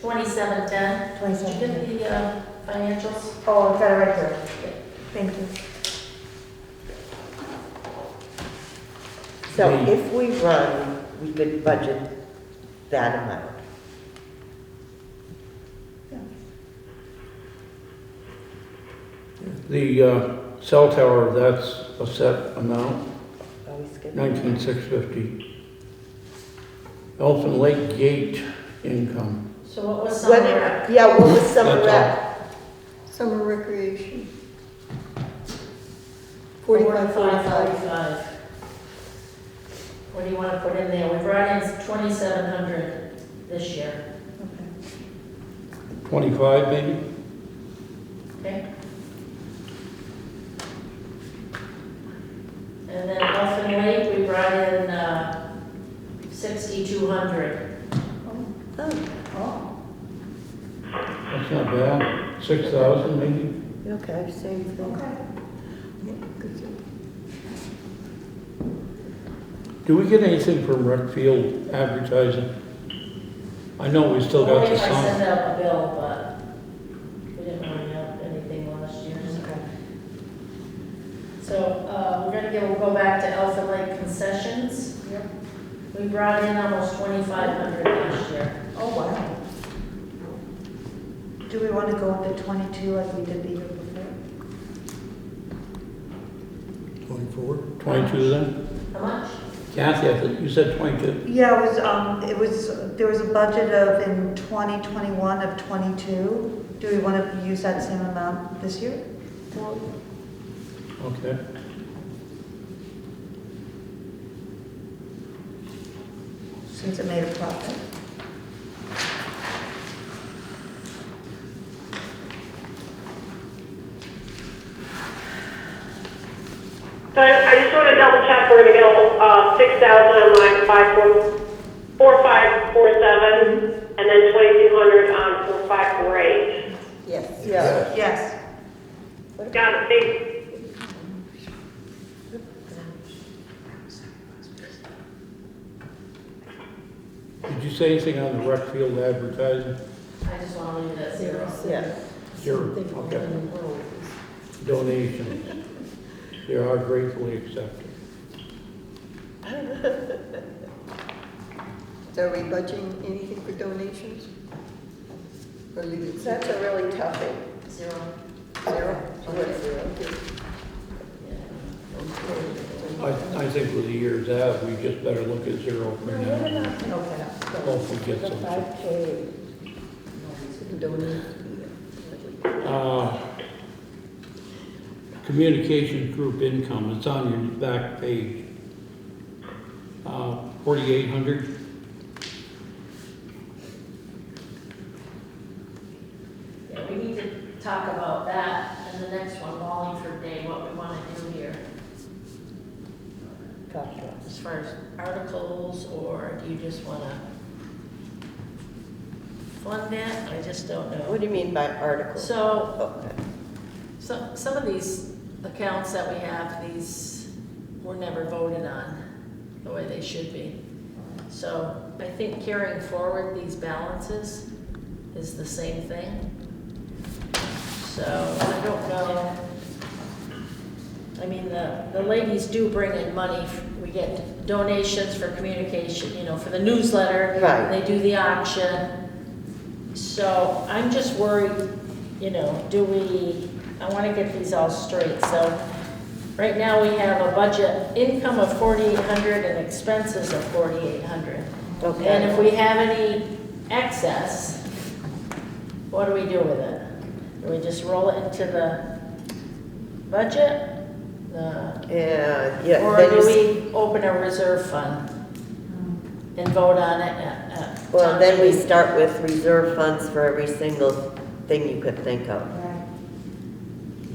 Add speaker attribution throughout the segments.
Speaker 1: Twenty-seven ten. Did you get
Speaker 2: Twenty-seven.
Speaker 1: the uh, financials?
Speaker 2: Oh, I've got it right here. Thank you.
Speaker 3: So if we run, we could budget that amount.
Speaker 4: The uh, cell tower, that's a set amount,
Speaker 3: Are we skipping?
Speaker 4: nineteen six fifty. Elfin Lake Gate income,
Speaker 1: So what was
Speaker 3: What,
Speaker 1: somewhere?
Speaker 3: yeah, what was summer
Speaker 4: That's
Speaker 3: rec?
Speaker 5: Summer recreation.
Speaker 1: Forty-five,
Speaker 5: Forty-five, forty-five.
Speaker 1: forty-five. What do you want to put in there? We brought in twenty-seven hundred this year,
Speaker 4: twenty-five maybe?
Speaker 1: okay? And then Elfin Lake, we brought in, uh, sixty-two hundred.
Speaker 5: Oh,
Speaker 4: That's not bad, six thousand maybe?
Speaker 3: Oh, Okay, same thing.
Speaker 5: okay. Good to-
Speaker 4: Do we get anything from rec field advertising? I know we still got
Speaker 1: Only
Speaker 4: the
Speaker 1: if I send
Speaker 4: sign.
Speaker 1: out a bill, but we didn't really have anything last year, so. So, uh, we're gonna go, go back to Alpha Lake concessions.
Speaker 5: Yep.
Speaker 1: We brought in almost twenty-five hundred last year.
Speaker 2: Oh, wow. Do we want to go up to twenty-two like we did the year before?
Speaker 4: Twenty-four? Twenty-two then?
Speaker 1: How much?
Speaker 4: Kathy, I think you said twenty-two.
Speaker 2: Yeah, it was, um, it was, there was a budget of in twenty twenty-one of twenty-two. Do we want to use that same amount this year?
Speaker 4: Okay.
Speaker 2: Since it made a profit?
Speaker 6: So I I just want to double check, we're going to go uh, 6,000 on line 4547, and then 2,200 on 4548.
Speaker 3: Yes.
Speaker 2: Yes. Yes.
Speaker 6: Got it, thanks.
Speaker 4: Did you say anything on the rec field advertising?
Speaker 1: I just wanna leave it at zero.
Speaker 3: Yeah.
Speaker 4: Zero, okay. Donations. They are gratefully accepted.
Speaker 5: So are we budgeting anything for donations? Or leave it?
Speaker 7: That's a really toughie.
Speaker 1: Zero.
Speaker 7: Zero? Okay.
Speaker 4: I, I think with the years out, we just better look at zero for now.
Speaker 2: Okay.
Speaker 4: Hopefully get
Speaker 7: The
Speaker 4: something.
Speaker 7: five K. Donate.
Speaker 4: Uh, Communications group income, it's on your back page. Uh, 4,800.
Speaker 1: Yeah, we need to talk about that in the next one, Wallingford Day, what we wanna do here. As far as articles, or do you just wanna fund that? I just don't
Speaker 3: What
Speaker 1: know.
Speaker 3: do you mean by article?
Speaker 1: So,
Speaker 3: Okay.
Speaker 1: So, some of these accounts that we have, these were never voted on the way they should be. So I think carrying forward these balances is the same thing. So I don't know. I mean, the, the ladies do bring in money. We get donations for communication, you know, for the newsletter.
Speaker 3: Right.
Speaker 1: They do the auction. So I'm just worried, you know, do we, I want to get these all straight, so right now we have a budget income of forty-eight hundred and expenses of forty-eight hundred.
Speaker 3: Okay.
Speaker 1: And if we have any excess, what do we do with it? Do we just roll it into the budget? The-
Speaker 3: Yeah, Uh, yeah.
Speaker 1: Or
Speaker 3: then
Speaker 1: do
Speaker 3: you s-
Speaker 1: we open a reserve fund and vote on it at, at?
Speaker 3: Well, then we
Speaker 1: town meeting?
Speaker 3: start with reserve funds for every single thing you could think of.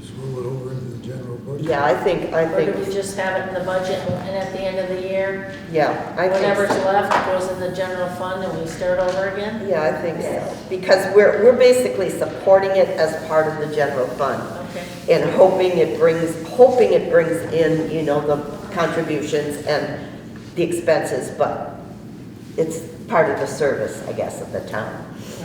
Speaker 8: Just roll it over into the general budget.
Speaker 3: Yeah, I think, I
Speaker 1: Or do we
Speaker 3: think,
Speaker 1: just have it in the budget and at the end of the year,
Speaker 3: yeah, I think
Speaker 1: whatever's
Speaker 3: so.
Speaker 1: left goes in the general fund and we start over again?
Speaker 3: Yeah, I think so, because we're, we're basically supporting it as part of the general fund
Speaker 1: Okay,
Speaker 3: and hoping it brings, hoping it brings in, you know, the contributions and the expenses, but it's part of the service, I guess, of the town.